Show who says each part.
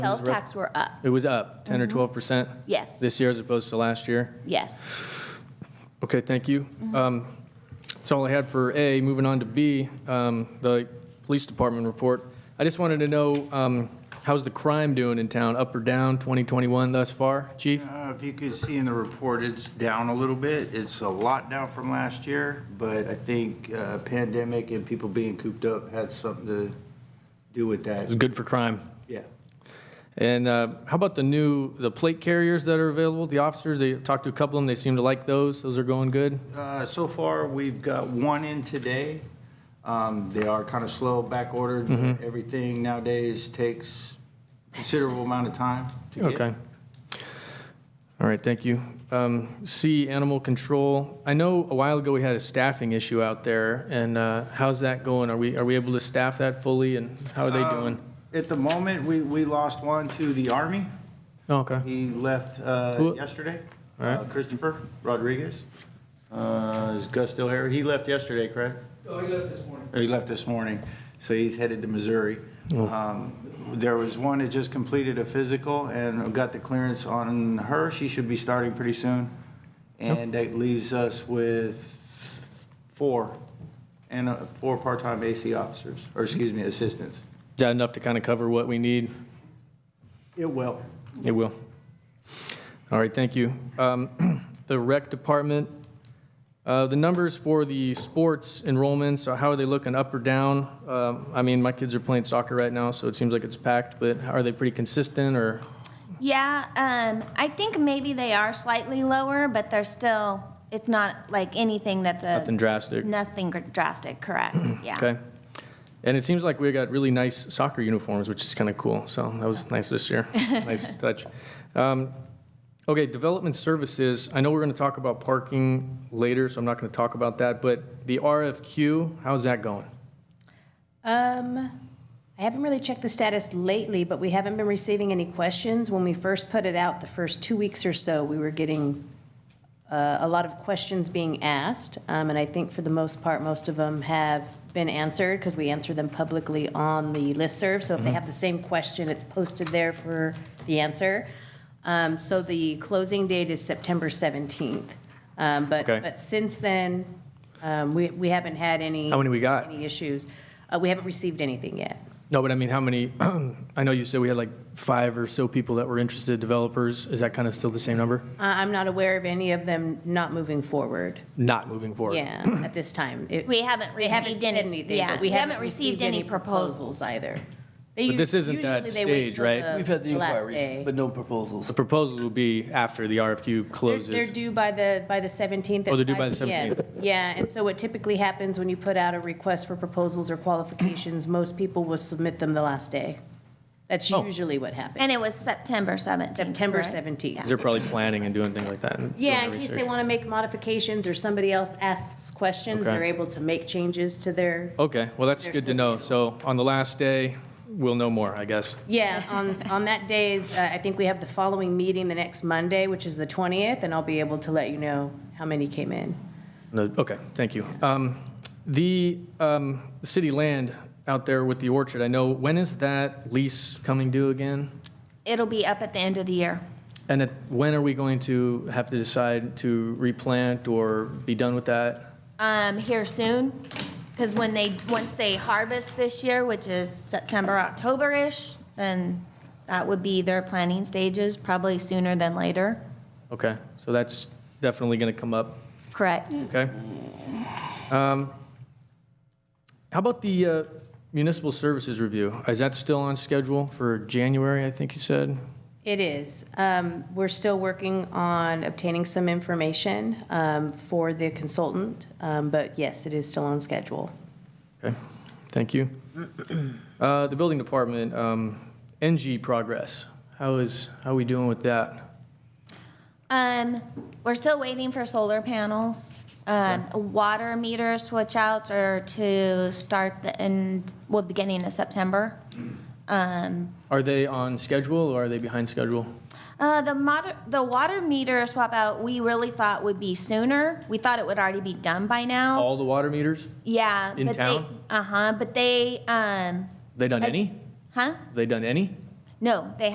Speaker 1: Sales tax were up,
Speaker 2: It was up 10 or 12%
Speaker 1: yes,
Speaker 2: this year as opposed to last year?
Speaker 1: yes.
Speaker 2: Okay, thank you. Um, That's all I had for A. Moving on to B, um, the police department report. I just wanted to know, um, how's the crime doing in town, up or down 2021 thus far, chief?
Speaker 3: Uh, If you could see in the report, it's down a little bit. It's a lot down from last year, but I think uh, pandemic and people being cooped up had something to do with
Speaker 2: It was
Speaker 3: that.
Speaker 2: good for crime.
Speaker 3: Yeah.
Speaker 2: And uh, how about the new, the plate carriers that are available, the officers? They talked to a couple of them, they seem to like those. Those are going good?
Speaker 3: Uh, So far, we've got one in today. Um, They are kind of slow, back ordered. Everything nowadays takes considerable amount of time to get.
Speaker 2: Okay. All right, thank you. Um, C, animal control. I know a while ago we had a staffing issue out there, and uh, how's that going? Are we, are we able to staff that fully, and how are they doing?
Speaker 3: At the moment, we, we lost one to the Army.
Speaker 2: Oh, Okay,
Speaker 3: He left uh,
Speaker 2: Who-
Speaker 3: yesterday.
Speaker 2: All right.
Speaker 3: Uh, Christopher Rodriguez. Uh, Is Gus still here? He left yesterday, correct? Oh, he left this morning. He left this morning, so he's headed to Missouri.
Speaker 2: Oh.
Speaker 3: Um, There was one that just completed a physical and got the clearance on her. She should be starting pretty soon. And that leaves us with four, and uh, four part-time AC officers, or excuse me, assistants.
Speaker 2: is that enough to kind of cover what we need?
Speaker 3: It will.
Speaker 2: It will. All right, thank you. Um, The rec department, uh, the numbers for the sports enrollments, so how are they looking, up or down? Um, I mean, my kids are playing soccer right now, so it seems like it's packed, but are they pretty consistent, or?
Speaker 1: Yeah, um, I think maybe they are slightly lower, but they're still, it's not like anything that's a.
Speaker 2: Nothing drastic.
Speaker 1: Nothing drastic, correct, yeah.
Speaker 2: Okay. And it seems like we got really nice soccer uniforms, which is kind of cool. So that was nice this year. nice touch. Um, okay, development services. I know we're going to talk about parking later, so I'm not going to talk about that. But the RFQ, how's that going?
Speaker 4: Um, I haven't really checked the status lately, but we haven't been receiving any questions. When we first put it out, the first two weeks or so, we were getting uh, a lot of questions being asked. Um, And I think for the most part, most of them have been answered because we answer them publicly on the listserv. So if
Speaker 2: Mm-hmm.
Speaker 4: they have the same question, it's posted there for the answer. Um, So the closing date is September 17th. Um, But,
Speaker 2: Okay.
Speaker 4: but since then, um, we, we haven't had any.
Speaker 2: How many we got?
Speaker 4: Any issues. Uh, We haven't received anything yet.
Speaker 2: No, but I mean, how many? I know you said we had like five or so people that were interested developers. Is that kind of still the same number?
Speaker 4: I- I'm not aware of any of them not moving forward,
Speaker 2: Not moving forward.
Speaker 4: yeah, at this time. It-
Speaker 1: We haven't
Speaker 4: They haven't
Speaker 1: received
Speaker 4: said
Speaker 1: any.
Speaker 4: anything,
Speaker 1: yeah,
Speaker 4: but we haven't received any proposals either. They
Speaker 2: But this
Speaker 4: usu-
Speaker 2: isn't that
Speaker 4: usually they wait
Speaker 2: stage,
Speaker 4: till
Speaker 2: right?
Speaker 5: We've had the
Speaker 4: last
Speaker 5: inquiries,
Speaker 4: day.
Speaker 5: but no proposals.
Speaker 2: The proposal will be after the RFQ
Speaker 4: They're-
Speaker 2: closes.
Speaker 4: They're due by the, by the 17th. at
Speaker 2: Oh, they're due by the
Speaker 4: 5 p.m.
Speaker 2: 17th.
Speaker 4: Yeah, and so what typically happens when you put out a request for proposals or qualifications, most people will submit them the last day. That's
Speaker 2: Oh.
Speaker 4: usually what happens,
Speaker 1: And it was September 17th.
Speaker 4: September
Speaker 1: correct?
Speaker 4: 17th.
Speaker 2: they're probably planning and doing things like that. and
Speaker 4: Yeah,
Speaker 2: doing
Speaker 4: in
Speaker 2: the
Speaker 4: case they
Speaker 2: research.
Speaker 4: want to make modifications or somebody else asks questions,
Speaker 2: Okay.
Speaker 4: they're able to make changes to their,
Speaker 2: Okay, well, that's
Speaker 4: There's
Speaker 2: good to know. So on the last day, we'll know more, I guess.
Speaker 4: yeah, on, on that day, uh, I think we have the following meeting the next Monday, which is the 20th, and I'll be able to let you know how many came in.
Speaker 2: No, Okay, thank you. Um, The um, city land out there with the orchard, I know, when is that lease coming due again?
Speaker 1: It'll be up at the end of the year.
Speaker 2: And at- when are we going to have to decide to replant or be done with that?
Speaker 1: Um, here soon, because when they, once they harvest this year, which is September, October-ish, then that would be their planning stages, probably sooner than later,
Speaker 2: Okay, so that's definitely going to come up,
Speaker 1: correct?
Speaker 2: okay? Um, How about the uh, municipal services review? Is that still on schedule for January, I think you said?
Speaker 4: It is. Um, We're still working on obtaining some information um, for the consultant, um, but yes, it is still on schedule.
Speaker 2: Okay, thank you. Uh, The building department, um, NG progress, how is, how we doing with that?
Speaker 1: Um, we're still waiting for solar panels. Um, water meter switch outs are to start the end, well, the beginning of September.
Speaker 2: Are they on schedule or are they behind schedule?
Speaker 1: Uh, the moder- the water meter swap out, we really thought would be sooner. We thought it would already be done by now.
Speaker 2: All the water meters?
Speaker 1: Yeah.
Speaker 2: in
Speaker 1: but
Speaker 2: town?
Speaker 1: they Uh-huh, but they, um,
Speaker 2: They done any?
Speaker 1: huh?
Speaker 2: They done any?
Speaker 1: No, they